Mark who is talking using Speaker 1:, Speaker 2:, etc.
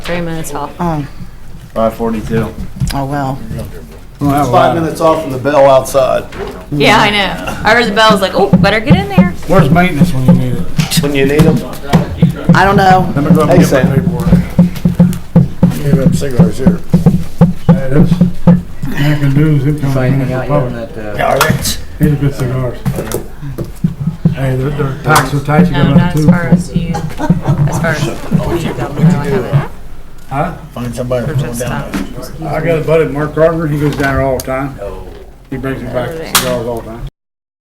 Speaker 1: three minutes off.
Speaker 2: Oh,
Speaker 3: Five forty-two.
Speaker 2: oh, well.
Speaker 4: Five minutes off from the bell outside.
Speaker 1: Yeah, I know. I heard the bell, I was like, oh, better get in there.
Speaker 5: Where's maintenance when you need it?
Speaker 4: When you need them.
Speaker 2: I don't know.
Speaker 5: Let me go up
Speaker 4: Hey,
Speaker 5: and get
Speaker 4: Sam.
Speaker 5: my paperwork.
Speaker 6: Gave up cigars here.
Speaker 5: Hey, that's, I can do is it comes
Speaker 7: Fighting
Speaker 5: from the
Speaker 7: out here in
Speaker 5: public.
Speaker 7: that, uh,
Speaker 5: These are good cigars. Hey, their, their packs are tight, you
Speaker 1: No, not
Speaker 5: got enough
Speaker 1: as
Speaker 5: too.
Speaker 1: far as you, as far as you go. No, I haven't.
Speaker 5: Huh?
Speaker 6: Find somebody
Speaker 1: They're
Speaker 6: to come
Speaker 1: just uh,
Speaker 6: down.
Speaker 1: out
Speaker 7: Oh.
Speaker 5: I got a buddy, Mark Carter, he goes down there all the time. He brings me back cigars all the time.